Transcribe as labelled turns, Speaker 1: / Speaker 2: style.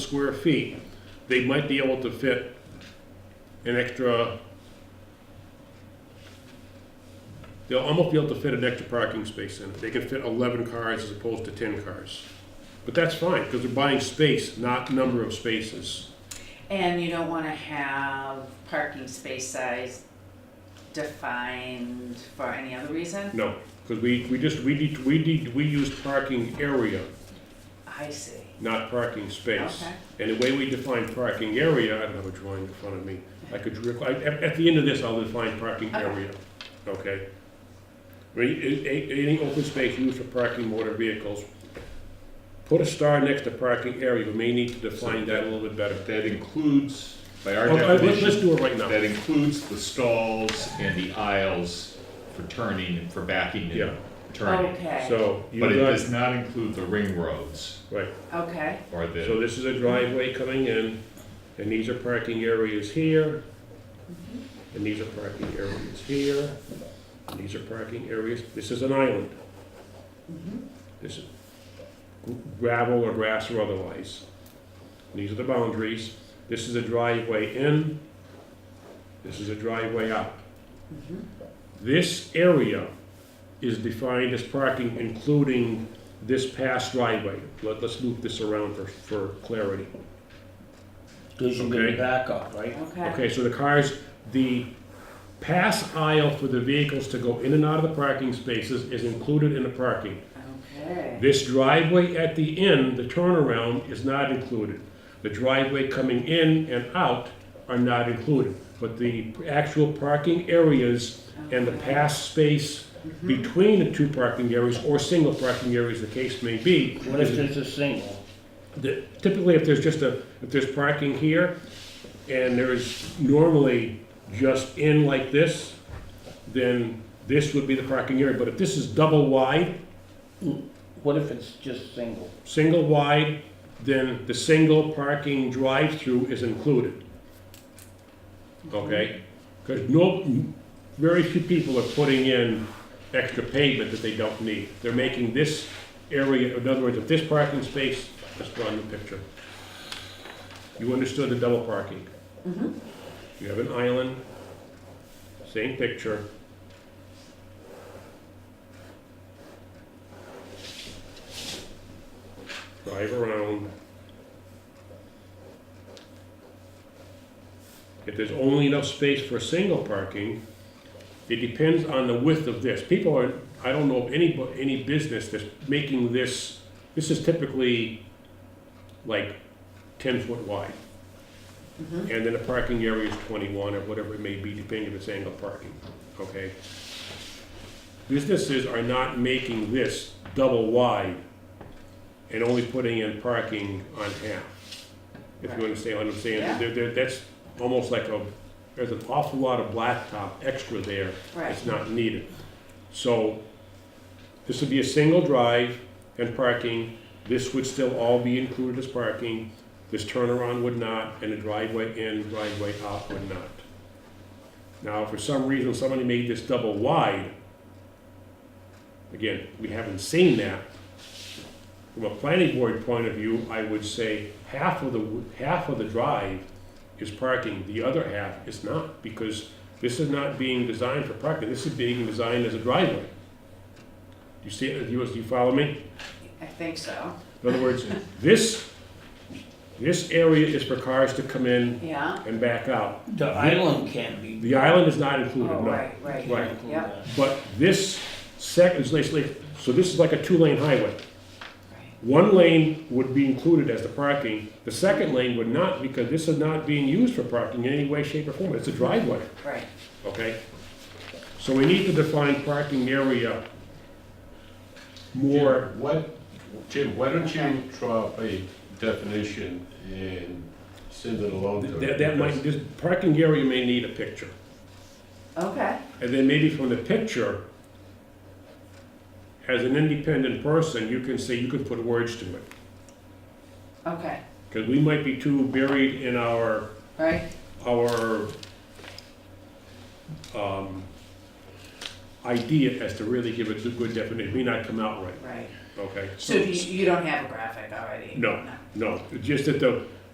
Speaker 1: square feet, they might be able to fit an extra, they'll almost be able to fit an extra parking space in it. They can fit 11 cars as opposed to 10 cars. But that's fine, because they're buying space, not number of spaces.
Speaker 2: And you don't wanna have parking space size defined for any other reason?
Speaker 1: No, because we, we just, we need, we need, we use parking area,
Speaker 2: I see.
Speaker 1: not parking space.
Speaker 2: Okay.
Speaker 1: And the way we define parking area, I don't have a drawing in front of me, I could, rec- I- at, at the end of this, I'll define parking
Speaker 2: Okay.
Speaker 1: area, okay? Re- a- a- Any open space used for parking motor vehicles, put a star next to parking area, we may need to define that a little bit better.
Speaker 3: That includes, by our
Speaker 1: Oh, I- Let's let's
Speaker 3: definition,
Speaker 1: do it right now,
Speaker 3: that includes the stalls and the aisles for turning and for backing
Speaker 1: Yeah.
Speaker 3: and turning.
Speaker 2: Okay,
Speaker 1: so you
Speaker 3: But it
Speaker 1: got,
Speaker 3: does not include the ring roads
Speaker 1: right,
Speaker 2: okay,
Speaker 3: or
Speaker 1: so
Speaker 3: the,
Speaker 1: this is a driveway coming in, and these are parking areas here, and these are parking areas here, and these are parking areas, this is an island. This is gravel or grass or otherwise. These are the boundaries. This is a driveway in. This is a driveway out. This area is defined as parking, including this past driveway. Let, let's loop this around for, for clarity.
Speaker 4: Because you
Speaker 1: Okay.
Speaker 4: can back up, right?
Speaker 2: okay,
Speaker 1: Okay, so the cars, the pass aisle for the vehicles to go in and out of the parking spaces is included in the parking.
Speaker 2: okay.
Speaker 1: This driveway at the end, the turnaround, is not included. The driveway coming in and out are not included, but the actual parking areas and the pass space between the two parking areas, or single parking areas, the case may be.
Speaker 4: What if it's a single?
Speaker 1: The- Typically, if there's just a, if there's parking here, and there's normally just in like this, then this would be the parking area, but if this is double wide,
Speaker 4: What if it's just single?
Speaker 1: single wide, then the single parking drive-through is included. Okay? Because no, very few people are putting in extra pavement that they don't need. They're making this area, in other words, if this parking space, let's draw a new picture. You understood the double parking. You have an island, same picture. drive around. If there's only enough space for single parking, it depends on the width of this. People are, I don't know of any, bu- any business that's making this, this is typically like ten foot wide. And then the parking area is twenty-one or whatever it may be, depending if it's angle parking, okay? Businesses are not making this double wide and only putting in parking on half. If you understand what I'm saying,
Speaker 2: Yeah.
Speaker 1: there, there, that's almost like a, there's an awful lot of blacktop extra there
Speaker 2: Right,
Speaker 1: that's not needed. So, this would be a single drive and parking, this would still all be included as parking, this turnaround would not, and the driveway in, driveway out would not. Now, if for some reason somebody made this double wide, again, we haven't seen that. From a planning board point of view, I would say half of the, half of the drive is parking, the other half is not, because this is not being designed for parking, this is being designed as a driveway. You see, you, you follow me?
Speaker 2: I think so,
Speaker 1: In other words, this, this area is for cars to come in
Speaker 2: yeah,
Speaker 1: and back out.
Speaker 4: The island can't be.
Speaker 1: The island is not included,
Speaker 2: oh,
Speaker 1: no.
Speaker 2: right,
Speaker 4: can't
Speaker 2: right,
Speaker 1: Right.
Speaker 4: include
Speaker 2: Yep.
Speaker 4: that.
Speaker 1: But this second, so this is like a two-lane highway.
Speaker 2: right,
Speaker 1: One lane would be included as the parking, the second lane would not, because this is not being used for parking in any way, shape, or form, it's a driveway,
Speaker 2: right,
Speaker 1: okay? So we need to define parking area more,
Speaker 5: Jim, What, Jim, why don't you draw up a definition and send it along to?
Speaker 1: that, that might, this parking area may need a picture.
Speaker 2: okay,
Speaker 1: And then maybe from the picture, as an independent person, you can say, you can put words to it.
Speaker 2: okay,
Speaker 1: Because we might be too buried in our,
Speaker 2: right,
Speaker 1: our, um, idea as to really give it a good definition, may not come out right,
Speaker 2: right?
Speaker 1: okay?
Speaker 2: So do you, you don't have a graphic already?
Speaker 1: No. No, just that the,